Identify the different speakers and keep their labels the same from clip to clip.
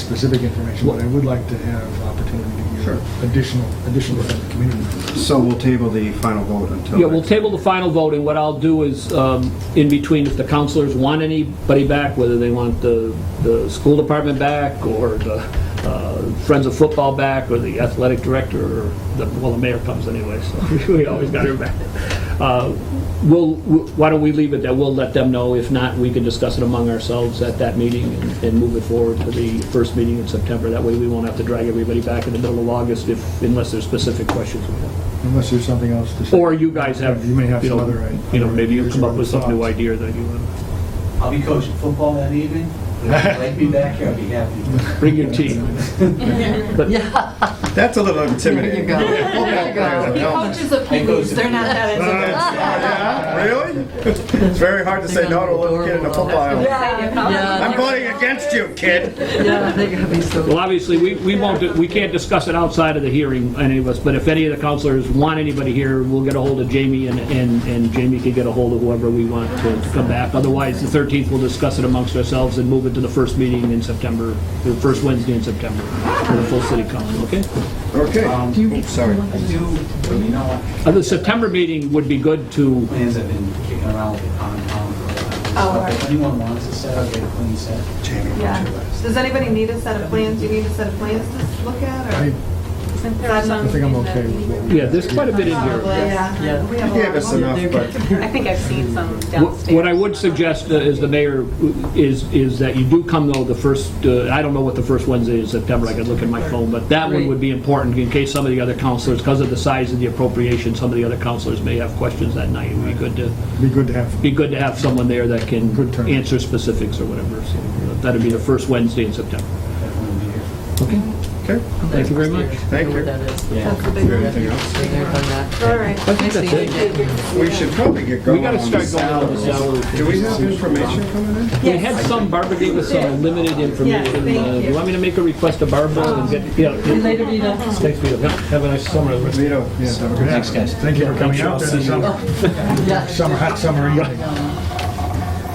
Speaker 1: specific information, but I would like to have opportunity to
Speaker 2: Sure.
Speaker 1: hear additional, additional from the community.
Speaker 2: So we'll table the final vote until.
Speaker 3: Yeah, we'll
Speaker 2: next-
Speaker 3: table the final vote, and what I'll do is, um, in between, if the counselors want anybody back, whether they want the, the school department back, or the uh, Friends of Football back, or the athletic director, or, the well, the mayor comes anyway, so we always got her back. Uh, We'll, why don't we leave it that we'll let them know, if not, we can discuss it among ourselves at that meeting and- and move it forward to the first meeting in September, that way we won't have to drag everybody back in the middle of August if, unless there's specific questions we have.
Speaker 1: Unless there's something else to say.
Speaker 3: Or you guys have,
Speaker 1: You may have
Speaker 3: you
Speaker 1: some
Speaker 3: know,
Speaker 1: other, right?
Speaker 3: you know, maybe you come up with some new
Speaker 1: Thoughts.
Speaker 3: idea that you uh, want.
Speaker 4: I'll be coaching football that evening. If you'd like me back here, I'll be happy.
Speaker 3: Bring your team.
Speaker 2: That's a little intimidating.
Speaker 5: There you
Speaker 2: Yeah,
Speaker 5: He
Speaker 2: no.
Speaker 5: coaches the Pee Wees, they're not that
Speaker 2: Yeah, Really? It's very hard to say no to a little kid in a football
Speaker 5: Yeah.
Speaker 2: aisle. I'm
Speaker 5: Yeah,
Speaker 2: voting against you, kid.
Speaker 5: yeah, they're gonna be so.
Speaker 3: Well, obviously, we, we won't, we can't discuss it outside of the hearing, any of us, but if any of the counselors want anybody here, we'll get a hold of Jamie and, and, and Jamie can get a hold of whoever we want to to come back. Otherwise, the 13th, we'll discuss it amongst ourselves and move it to the first meeting in September, the first Wednesday in September for the full city council, okay?
Speaker 2: Okay. Um, Oops, sorry.
Speaker 4: I do, but you know what?
Speaker 3: Uh, The September meeting would be good to,
Speaker 4: Plans have been kicking around with the pond pound for a while.
Speaker 6: Oh,
Speaker 4: So
Speaker 6: all right.
Speaker 4: If anyone wants a set, I'll get a clean set.
Speaker 6: Yeah. Does anybody need a set of plans? Do you need a set of plans to look at,
Speaker 1: I
Speaker 6: or?
Speaker 1: I think I'm okay with what we.
Speaker 3: yeah, there's quite a bit in here.
Speaker 6: Yeah.
Speaker 2: You
Speaker 6: We have a lot
Speaker 2: gave
Speaker 6: of
Speaker 2: us
Speaker 6: them.
Speaker 2: enough, but
Speaker 7: I think I've seen some
Speaker 3: What
Speaker 7: downstairs.
Speaker 3: what I would suggest uh, is the mayor, uh, is, is that you do come though the first, uh, I don't know what the first Wednesday in September, I could look at my phone, but that one would be important in case some of the other counselors, because of the size of the appropriation, some of the other counselors may have questions that night. It would be good to,
Speaker 1: Be good to have.
Speaker 3: be good to have someone there that can
Speaker 1: Good turn.
Speaker 3: answer specifics or whatever. So That'd be the first Wednesday in September.
Speaker 4: Everyone will be here.
Speaker 2: okay.
Speaker 3: Thank you very much.
Speaker 2: Thank you.
Speaker 6: That's the big
Speaker 2: Anything
Speaker 6: one.
Speaker 2: else?
Speaker 6: All right.
Speaker 3: I think that's it.
Speaker 2: We should probably get
Speaker 3: We
Speaker 2: going
Speaker 3: gotta
Speaker 2: on
Speaker 3: start
Speaker 2: this.
Speaker 3: going on this hour.
Speaker 2: Do we have information coming in?
Speaker 3: We had some, Barbara gave us some limited
Speaker 6: Yes,
Speaker 3: information.
Speaker 6: thank
Speaker 3: Uh, Do you
Speaker 6: you.
Speaker 3: want me to make a request to Barbara and get, yeah.
Speaker 5: Later, you know.
Speaker 3: Thanks, Vito. Yeah, Have a nice summer.
Speaker 2: Vito,
Speaker 1: Yes, have a good
Speaker 4: Thanks, guys.
Speaker 1: Thank you for coming out there this summer,
Speaker 5: Yeah.
Speaker 1: summer, hot summer evening.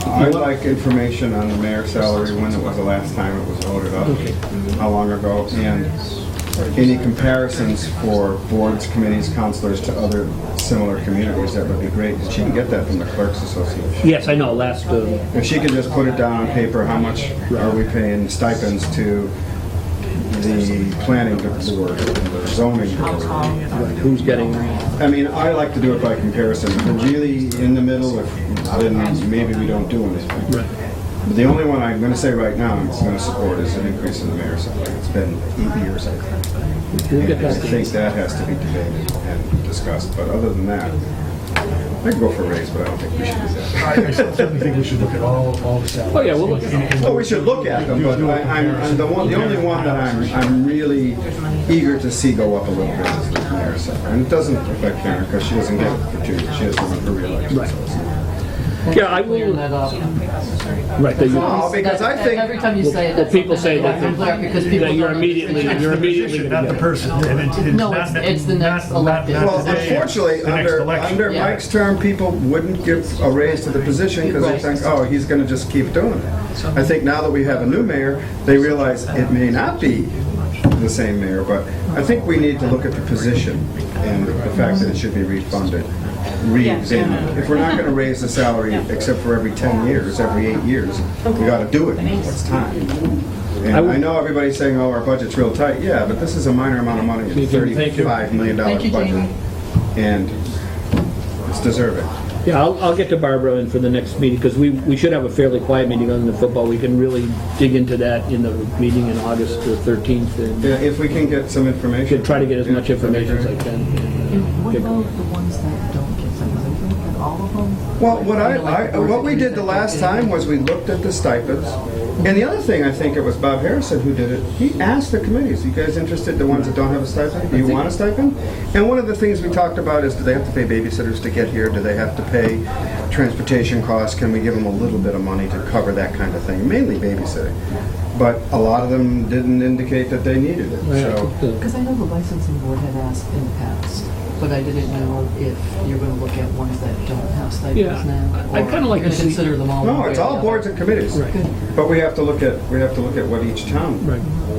Speaker 2: I'd like information on the mayor's salary, when it was the last time it was voted up, how long ago, and any comparisons for boards, committees, counselors to other similar communities, that would be great. She can get that from the clerks association.
Speaker 3: Yes, I know, last, uh,
Speaker 2: If she could just put it down on paper, how much are we paying stipends to the planning board, the zoning board?
Speaker 3: who's getting,
Speaker 2: I mean, I like to do it by comparison. We're really in the middle, if, then maybe we don't do anything. The only one I'm going to say right now I'm going to support is an increase in the mayor's salary. It's been eight years, I think.
Speaker 3: we'll get
Speaker 2: And I
Speaker 3: that.
Speaker 2: think that has to be debated and discussed, but other than that, I can go for a raise, but I don't think we should do that.
Speaker 1: I I certainly think we should look at all, all the salaries.
Speaker 3: Oh, yeah, we'll look at
Speaker 1: In- in-
Speaker 2: Well, we should look at them, but I- I'm, I'm the one, the only one that I'm, I'm really eager to see go up a little bit is the mayor's salary. And it doesn't affect Karen because she doesn't get it for two, she has to run for reelection. so it's not-
Speaker 3: Yeah, I will,
Speaker 5: Clear that up.
Speaker 3: right, that you-
Speaker 2: No, Oh, because I think.
Speaker 5: Every time you say it.
Speaker 3: well, people say that
Speaker 5: I'm glad Because
Speaker 3: that
Speaker 5: people.
Speaker 3: you're
Speaker 5: don't-
Speaker 3: immediately, you're immediately
Speaker 8: position, not
Speaker 3: gonna
Speaker 8: the
Speaker 3: get it.
Speaker 8: person. And it-
Speaker 5: No, it's-
Speaker 8: not-
Speaker 5: it's the next
Speaker 8: not- not-
Speaker 5: elected.
Speaker 8: not
Speaker 2: Well,
Speaker 8: today,
Speaker 2: unfortunately,
Speaker 8: the next
Speaker 2: under,
Speaker 8: election.
Speaker 2: under
Speaker 5: Yeah.
Speaker 2: Mike's term, people wouldn't give a raise to the position because they
Speaker 5: Right.
Speaker 2: think, oh, he's going to just keep doing it. I think now that we have a new mayor, they realize it may not be the same mayor, but I think we need to look at the position and the fact that it should be refunded, re-examined. If we're not going to raise the salary except for every 10 years, every eight years, we got to do it. It's time. And
Speaker 3: I would-
Speaker 2: I know everybody's saying, oh, our budget's real tight. Yeah, but this is a minor amount of money, it's
Speaker 3: Thank you.
Speaker 2: $35 million
Speaker 5: Thank you,
Speaker 2: budget.
Speaker 5: Jamie.
Speaker 2: And it's deserving.
Speaker 3: Yeah, I'll, I'll get to Barbara and for the next meeting, because we, we should have a fairly quiet meeting on the football. We can really dig into that in the meeting in August the 13th and
Speaker 2: Yeah, If we can get some information.
Speaker 3: should try to get as much
Speaker 2: Yeah, that'd be
Speaker 3: information as I
Speaker 2: great.
Speaker 3: can. and, uh,
Speaker 9: What
Speaker 3: get
Speaker 9: about
Speaker 3: going.
Speaker 9: the ones that don't get subsidies? Don't we get all of them?
Speaker 2: Well, what I, I, what we did the last time was we looked at the stipends. And the other thing, I think it was Bob Harrison who did it, he asked the committees, you guys interested, the ones that don't have a stipend? Do you want a stipend? And one of the things we talked about is, do they have to pay babysitters to get here? Do they have to pay transportation costs? Can we give them a little bit of money to cover that kind of thing? Mainly babysitting. but a lot of them didn't indicate that they needed it, so.
Speaker 9: Because I know the licensing board had asked in the past, but I didn't know if you're going to look at ones that don't have
Speaker 3: Yeah,
Speaker 9: stipends now.
Speaker 3: I- I kinda like to
Speaker 9: Or you're gonna
Speaker 3: see-
Speaker 9: consider them all. one
Speaker 2: No,
Speaker 9: way
Speaker 2: it's
Speaker 9: or
Speaker 2: all
Speaker 9: the other.
Speaker 2: boards and committees,
Speaker 3: Right.
Speaker 9: Good.
Speaker 2: but we have to look at, we have to look at what each town
Speaker 3: Right.